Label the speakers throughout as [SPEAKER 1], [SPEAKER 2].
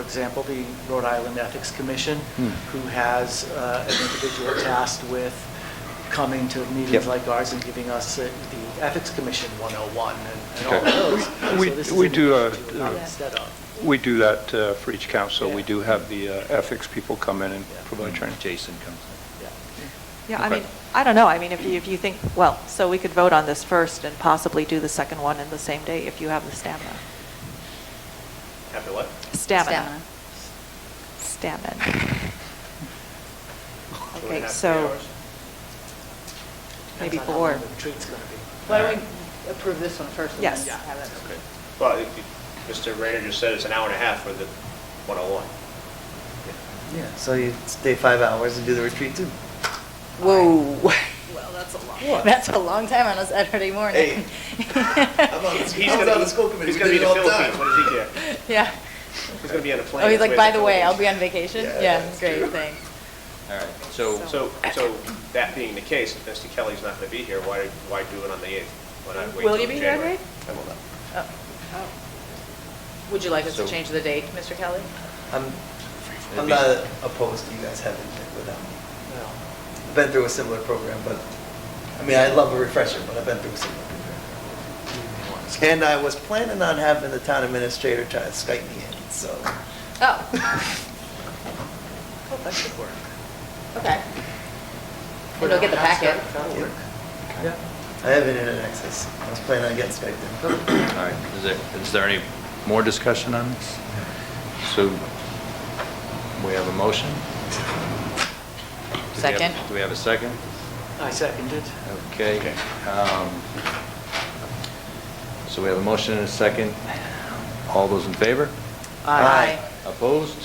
[SPEAKER 1] example, the Rhode Island Ethics Commission,
[SPEAKER 2] Hmm.
[SPEAKER 1] who has uh, an individual tasked with coming to meetings
[SPEAKER 2] Yep.
[SPEAKER 1] like ours and giving us uh, the Ethics Commission 101 and- and
[SPEAKER 2] Okay.
[SPEAKER 1] all those. So
[SPEAKER 3] We-
[SPEAKER 1] this is
[SPEAKER 3] we
[SPEAKER 1] an
[SPEAKER 3] do, uh,
[SPEAKER 1] individual
[SPEAKER 3] uh,
[SPEAKER 1] Instead of.
[SPEAKER 3] We do that uh, for each council. We
[SPEAKER 1] Yeah.
[SPEAKER 3] do have the uh, ethics people come in and
[SPEAKER 1] Yeah.
[SPEAKER 3] provide training.
[SPEAKER 2] Jason comes in.
[SPEAKER 1] Yeah.
[SPEAKER 4] Yeah, I
[SPEAKER 3] Okay.
[SPEAKER 4] mean, I don't know, I mean, if you, if you think, well, so we could vote on this first and possibly do the second one in the same day if you have the stamina.
[SPEAKER 1] After what?
[SPEAKER 4] Stamina. Stamina.
[SPEAKER 1] Two and a
[SPEAKER 4] Okay,
[SPEAKER 1] half, three
[SPEAKER 4] so
[SPEAKER 1] hours.
[SPEAKER 4] maybe
[SPEAKER 1] Depends on how
[SPEAKER 4] four.
[SPEAKER 1] long The retreat's going to be.
[SPEAKER 5] Why don't we approve this one first? and then
[SPEAKER 4] Yes.
[SPEAKER 5] have it?
[SPEAKER 6] Well, if you- Mr. Rayner just said it's an hour and a half for the 101.
[SPEAKER 7] Yeah, so you stay five hours and do the retreat too.
[SPEAKER 5] Whoa. Well, that's a long.
[SPEAKER 7] What?
[SPEAKER 5] That's a long time on a Saturday morning.
[SPEAKER 7] He's
[SPEAKER 6] He's gonna be- He's going to be in the Philippines, what does he care?
[SPEAKER 5] Yeah.
[SPEAKER 6] He's going to be on a plane.
[SPEAKER 5] Oh, he's like,
[SPEAKER 6] halfway
[SPEAKER 5] by
[SPEAKER 6] to
[SPEAKER 5] the way, I'll be
[SPEAKER 6] Philippines."
[SPEAKER 5] on vacation?
[SPEAKER 6] Yeah,
[SPEAKER 5] Yeah,
[SPEAKER 6] that's
[SPEAKER 5] great,
[SPEAKER 6] true.
[SPEAKER 5] thanks.
[SPEAKER 2] All right, so,
[SPEAKER 6] So, so that being the case, if Mr. Kelly's not going to be here, why, why do it on the 8th? Why not wait
[SPEAKER 5] Will
[SPEAKER 6] till
[SPEAKER 5] you be here,
[SPEAKER 6] January?
[SPEAKER 5] Greg?
[SPEAKER 6] I will not.
[SPEAKER 5] Oh. Would you like us to
[SPEAKER 2] So-
[SPEAKER 5] change the date, Mr. Kelly?
[SPEAKER 7] I'm,
[SPEAKER 2] It'd
[SPEAKER 7] I'm
[SPEAKER 2] be-
[SPEAKER 7] not opposed to you guys having it without me.
[SPEAKER 1] Well,
[SPEAKER 7] I've been through a similar program, but, I mean, I love a refresher, but I've been through a similar program. And I was planning on having the town administrator try to Skype me in, so.
[SPEAKER 5] Oh,
[SPEAKER 1] oh, That should work.
[SPEAKER 5] okay. And you'll get the packet.
[SPEAKER 1] That'll work.
[SPEAKER 7] Yeah. I have internet access. I was planning on getting Skyped in.
[SPEAKER 2] all right, is there, is there any more discussion on this? So, we have a motion? Do we have-
[SPEAKER 5] Second.
[SPEAKER 2] Do we have a second?
[SPEAKER 1] I seconded.
[SPEAKER 2] Okay. um, So we have a motion and a second. All those in favor?
[SPEAKER 7] Aye.
[SPEAKER 2] Opposed?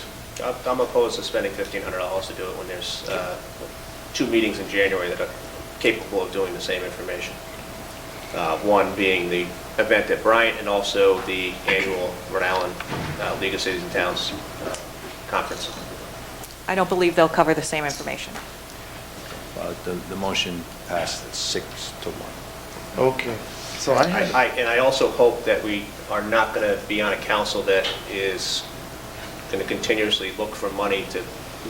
[SPEAKER 6] I'm- I'm opposed to spending $1,500 to do it when there's uh, two meetings in January that are capable of doing the same information. Uh, One being the event at Bryant and also the annual Rhode Island uh, League of Cities and Towns uh, Conference.
[SPEAKER 4] I don't believe they'll cover the same information.
[SPEAKER 2] Uh, The, the motion passed six to one.
[SPEAKER 7] Okay, so
[SPEAKER 6] I-
[SPEAKER 7] I had.
[SPEAKER 6] I- And I also hope that we are not going to be on a council that is going to continuously look for money to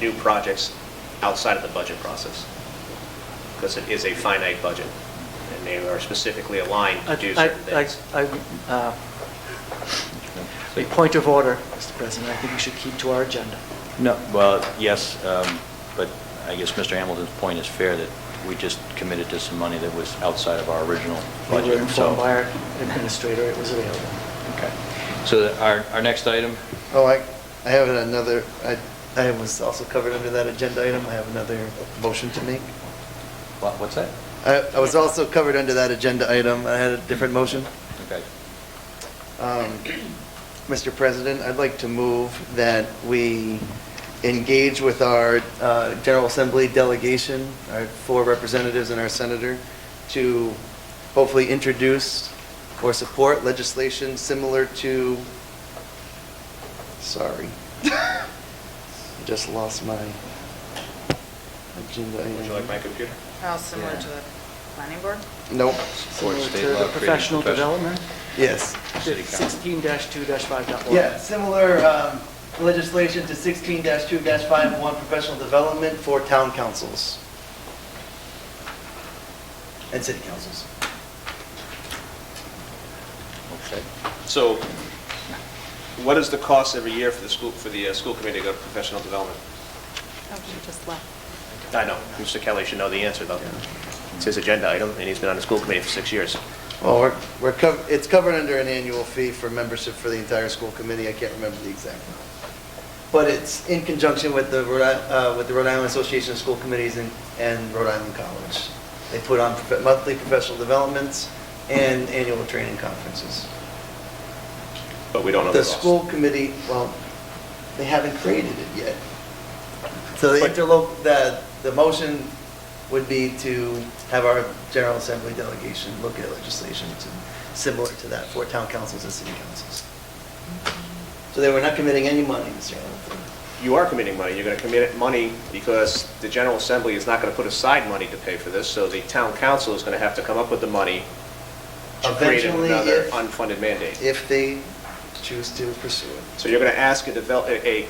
[SPEAKER 6] new projects outside of the budget process, because it is a finite budget, and they are specifically aligned to do
[SPEAKER 1] I-
[SPEAKER 6] certain
[SPEAKER 1] I-
[SPEAKER 6] things.
[SPEAKER 1] I- I, uh, A point of order, Mr. President, I think we should keep to our agenda.
[SPEAKER 2] No, well, yes, um, but I guess Mr. Hamilton's point is fair, that we just committed to some money that was outside of our original
[SPEAKER 1] We
[SPEAKER 2] budget, so...
[SPEAKER 1] were informed by our administrator it was available.
[SPEAKER 2] Okay. So our, our next item,
[SPEAKER 7] Oh, I, I have another, I, I was also covered under that agenda item, I have another motion to make.
[SPEAKER 2] what- what's that?
[SPEAKER 7] I, I was also covered under that agenda item, I had a different motion.
[SPEAKER 2] Okay.
[SPEAKER 7] Um, Mr. President, I'd like to move that we engage with our uh, General Assembly delegation, our four representatives and our senator, to hopefully introduce or support legislation similar to, sorry, I just lost my agenda.
[SPEAKER 6] Would you like my
[SPEAKER 7] item.
[SPEAKER 6] computer?
[SPEAKER 5] How
[SPEAKER 7] similar to the
[SPEAKER 5] planning board?
[SPEAKER 7] Nope,
[SPEAKER 2] Support
[SPEAKER 1] Similar
[SPEAKER 2] state
[SPEAKER 1] to
[SPEAKER 2] law
[SPEAKER 1] the
[SPEAKER 2] creating
[SPEAKER 1] professional
[SPEAKER 2] professional-
[SPEAKER 1] development,
[SPEAKER 7] yes.
[SPEAKER 2] City Council.
[SPEAKER 1] 16-2-5.1.
[SPEAKER 7] Yeah, similar um, legislation to 16-2-51, professional development for town councils. And city councils.
[SPEAKER 2] Okay.
[SPEAKER 6] So what is the cost every year for the school, for the uh, school committee to go to professional development?
[SPEAKER 4] Oh, she just left.
[SPEAKER 6] I know, Mr. Kelly should know the answer, though. It's his agenda item, and he's been on the school committee for six years.
[SPEAKER 7] Well, we're, we're, cov- it's covered under an annual fee for membership for the entire school committee, I can't remember the exact amount. But it's in conjunction with the, Rhode I- uh, with the Rhode Island Association of School Committees and, and Rhode Island College. They put on prof- monthly professional developments and annual training conferences.
[SPEAKER 6] But we don't know the
[SPEAKER 7] The
[SPEAKER 6] cost.
[SPEAKER 7] school committee, well, they haven't created it yet. So the
[SPEAKER 6] But-
[SPEAKER 7] interloc, the, the motion would be to have our General Assembly delegation look at legislation to, similar to that for town councils and city councils. So they were not committing any money, Mr. Hamilton.
[SPEAKER 6] you are committing money. You're going to commit money because the General Assembly is not going to put aside money to pay for this, so the town council is going to have to come up with the money to create
[SPEAKER 7] Eventually,
[SPEAKER 6] another
[SPEAKER 7] if-
[SPEAKER 6] unfunded mandate.
[SPEAKER 7] If they choose to pursue it.
[SPEAKER 6] So you're going to ask a develop, a a